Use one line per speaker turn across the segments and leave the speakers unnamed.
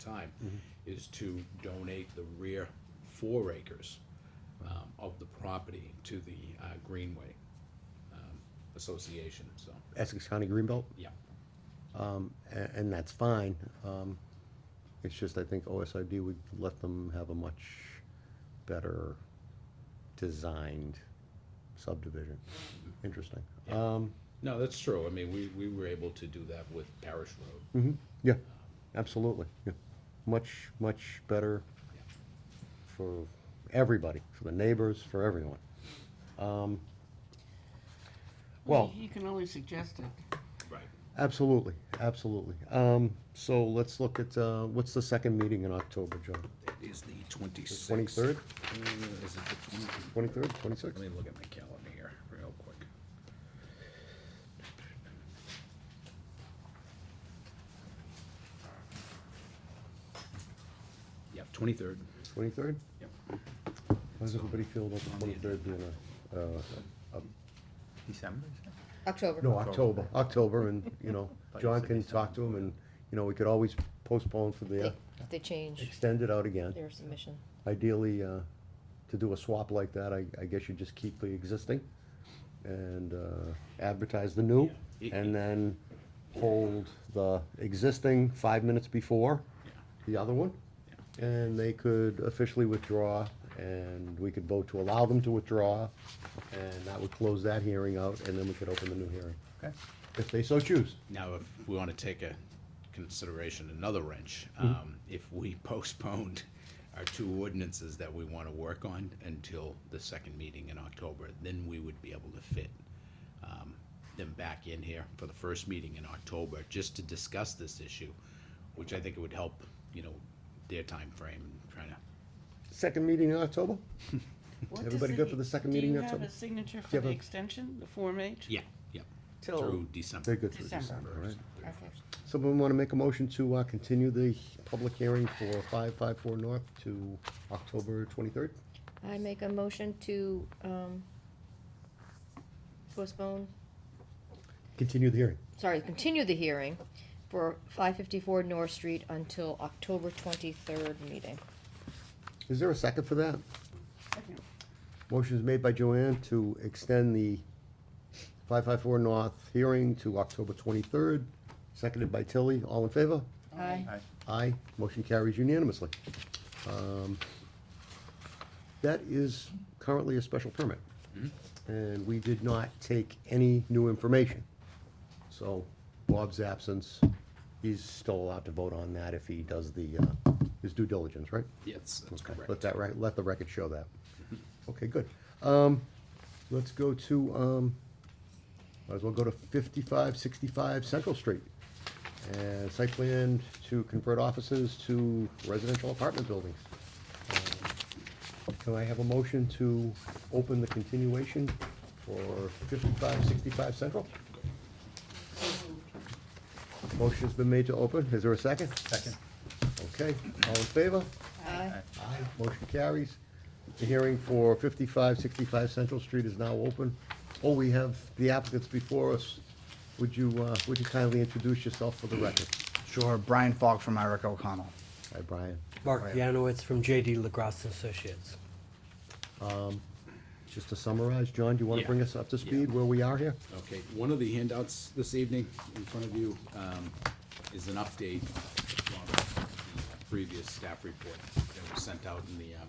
time, is to donate the rear four acres um, of the property to the uh, Greenway um, Association, so,
Essex County Greenbelt,
yeah.
um, a- and that's fine. Um, It's just, I think OSRD would let them have a much better designed subdivision. Interesting.
Yeah.
Um,
No, that's true, I mean, we, we were able to do that with Parish Road.
mhm, yeah, absolutely, yeah. Much, much better
Yeah.
for everybody, for the neighbors, for everyone. Um, Well.
You can always suggest it.
Right.
Absolutely, absolutely. Um, so let's look at, uh, what's the second meeting in October, John?
It is the twenty-sixth.
Twenty-third,
Mm, Is it the twenty?
twenty-third, twenty-sixth?
Let me look at my calendar here real quick. Yep, twenty-third.
Twenty-third?
Yep.
How does everybody feel about the twenty-third being a, uh,
December, is it?
October.
no, October, October, and, you know,
Thought you
John
said
can
December.
talk to him, and, you know, we could always postpone for the,
They- If they change
extend it out again.
their submission.
Ideally, uh, to do a swap like that, I, I guess you just keep the existing and, uh, advertise the new,
Yeah.
and then hold the existing five minutes before the other one. And they could officially withdraw, and we could vote to allow them to withdraw, and that would close that hearing out, and then we could open the new hearing,
Okay.
if they so choose.
Now, if we want to take a consideration, another wrench, um, if we postponed our two ordinances that we want to work on until the second meeting in October, then we would be able to fit um, them back in here for the first meeting in October, just to discuss this issue, which I think it would help, you know, their timeframe, and trying to,
Second meeting in October? Everybody good for the second meeting in
Do you
October?
have a signature
Do
for
you
the
have a-
extension, the Form H?
yeah, yeah,
Till,
through December.
They're good through
December.
December, all right?
okay.
Someone want to make a motion to uh, continue the public hearing for 554 North to October 23rd?
I make a motion to, um, postpone,
Continue the hearing.
sorry, continue the hearing for five fifty-four North Street until October twenty-third meeting.
Is there a second for that?
Second.
Motion is made by Joanne to extend the 554 North hearing to October 23rd, seconded by Tilly. All in favor?
Aye.
Aye.
Aye. Motion carries unanimously. Um, That is currently a special permit. And we did not take any new information. So Bob's absence, he's still allowed to vote on that if he does the, uh, his due diligence, right?
Yes, that's
Okay,
correct. Mm-hmm.
Let that, right, let the record show that. Okay, good. Um, let's go to, um, might as well go to fifty-five sixty-five Central Street. And site plan to convert offices to residential apartment buildings. Um, Can I have a motion to open the continuation for fifty-five sixty-five Central? Motion's been made to open. Is there a second?
Second.
Okay, all in favor?
Aye.
Aye, motion carries. The hearing for fifty-five sixty-five Central Street is now open. Oh, we have the applicants before us. Would you, uh, would you kindly introduce yourself for the record?
Sure, Brian Falk from Ira O'Connell.
Hi, Brian.
Mark
Right.
Janowitz from JD LaGrasse Associates.
Just to summarize, John, do you wanna
Yeah.
bring us up to
Yeah.
speed where we are here?
Okay, one of the handouts this evening in front of you um, is an update on the previous staff report that was sent out in the, um,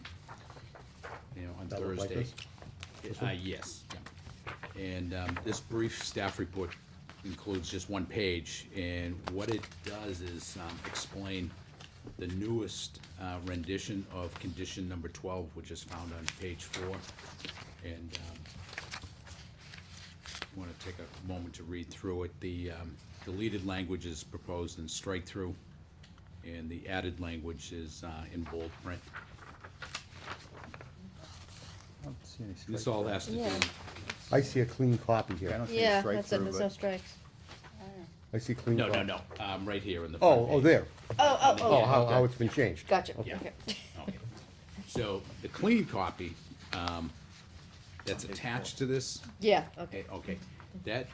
you know, on
That look like
Thursday.
this?
Uh, yes, yeah. And um, this brief staff report includes just one page, and what it does is um, explain the newest uh, rendition of condition number twelve, which is found on page four. And um, want to take a moment to read through it. The um, deleted language is proposed in strike-through, and the added language is uh, in bold print.
I don't see any strike
This all
through.
has to do,
Yeah.
I see a clean copy
Yeah, I
here.
don't see a
Yeah,
strike
that's it,
through,
there's no
but-
strikes.
I see clean
no,
copy.
no, no, um, right here in the front
Oh, oh,
page.
there.
Oh, oh,
Oh,
oh,
how, how it's been changed.
gotcha,
Yeah.
okay.
Okay. So the clean copy um, that's attached to this
Yeah, okay.
Okay, okay, that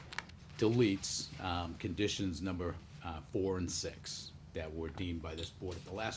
deletes, um, conditions number, uh, four and six that were deemed by this board at the last